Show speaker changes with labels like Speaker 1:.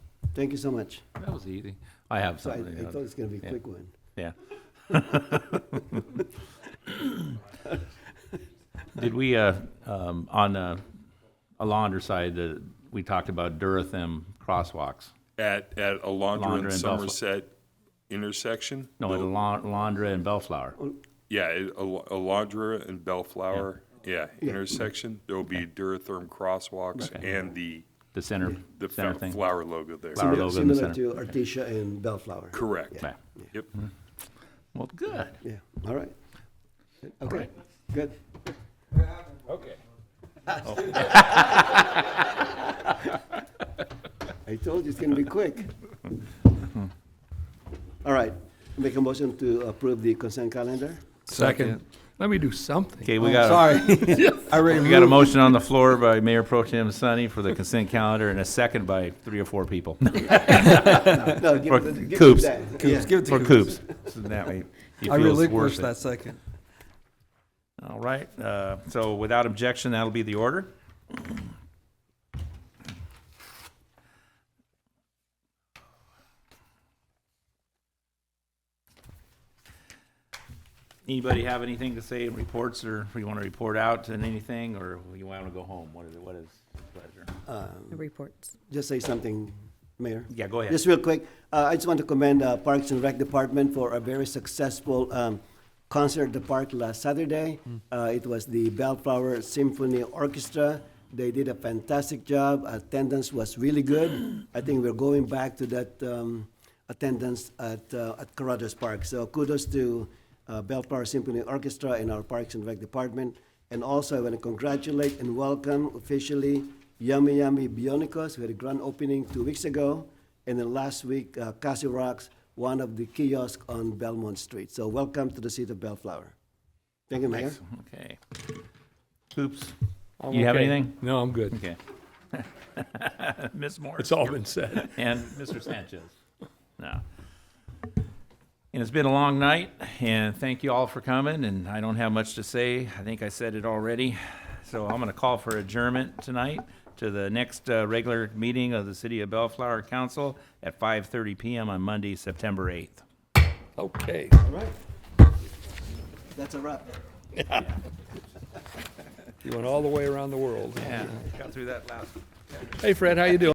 Speaker 1: Thank you so much.
Speaker 2: That was easy. I have
Speaker 1: So I,
Speaker 2: something.
Speaker 1: I thought it was gonna be a
Speaker 2: Oh, Yeah.
Speaker 1: quick one.
Speaker 2: Yeah. Did we, uh, um, on, uh, Alondra side, the, we talked about Durathem crosswalks.
Speaker 3: At, at
Speaker 2: Alondra
Speaker 3: Alondra
Speaker 2: and
Speaker 3: and
Speaker 2: Belfla-
Speaker 3: Somerset intersection?
Speaker 2: No, at
Speaker 3: Well,
Speaker 2: Alon- Alondra and Bellflower.
Speaker 3: Yeah, at Al- Alondra and Bellflower, yeah, intersection, there'll be Duratherm crosswalks and the,
Speaker 2: the center,
Speaker 3: the
Speaker 2: center
Speaker 3: fa-
Speaker 2: thing.
Speaker 3: flower logo there.
Speaker 2: Flower. Our
Speaker 1: Similar-
Speaker 2: logo in the
Speaker 1: Similar to Artesia and Bellflower.
Speaker 3: Correct.
Speaker 2: Yeah. Mm-hmm.
Speaker 3: Yep.
Speaker 2: Well, good.
Speaker 1: Yeah, all right. Okay,
Speaker 2: right.
Speaker 1: good.
Speaker 2: Okay.
Speaker 1: I told you it's gonna be quick. All right, make a motion to approve the consent calendar?
Speaker 4: Second. Let me do something.
Speaker 2: Okay, we
Speaker 4: Oh,
Speaker 2: got a-
Speaker 4: Sorry. I already
Speaker 2: We got a
Speaker 4: moved.
Speaker 2: motion on the floor by Mayor Pro Tem Sunny for the consent calendar and a second by three or four people.
Speaker 1: No, give
Speaker 2: For
Speaker 1: it- give it
Speaker 2: Coops.
Speaker 1: that. Yeah.
Speaker 4: Coops, give it to
Speaker 2: For Coops. So that way he
Speaker 4: I
Speaker 2: feels
Speaker 4: relinquished
Speaker 2: worth it.
Speaker 4: that second.
Speaker 2: All right, uh, so without objection, that'll be the order. Anybody have anything to say, reports, or if you want to report out and anything, or you want to go home? What is, it? what is pleasure?
Speaker 1: Um,
Speaker 5: reports.
Speaker 1: Just say something, Mayor.
Speaker 2: Yeah, go ahead.
Speaker 1: Just real quick, uh, I just want to commend uh, Parks and Rec Department for a very successful um, concert at the park last Saturday. Uh, It was the Bellflower Symphony Orchestra. They did a fantastic job. Attendance was really good. I think we're going back to that um, attendance at uh, at Carruthers Park. So kudos to uh, Bellflower Symphony Orchestra and our Parks and Rec Department. And also, I want to congratulate and welcome officially Yummy Yummy Bionicos. We had a grand opening two weeks ago. And then last week, uh, Cassie Rocks, one of the kiosks on Belmont Street. So welcome to the city of Bellflower. Thank you, Mayor.
Speaker 2: Okay. Coops, you have anything?
Speaker 4: No, I'm good.
Speaker 2: Okay. Ms. Morris?
Speaker 4: It's all been said.
Speaker 2: and Mr. Sanchez. No. And it's been a long night, and thank you all for coming, and I don't have much to say. I think I said it already. So I'm gonna call for adjournment tonight to the next, uh, regular meeting of the City of Bellflower Council at five thirty PM on Monday, September eighth.
Speaker 4: Okay.
Speaker 1: All right. That's a wrap.
Speaker 4: You went all the way around the world.
Speaker 2: Yeah, got through that last
Speaker 4: Hey, Fred, how you doing?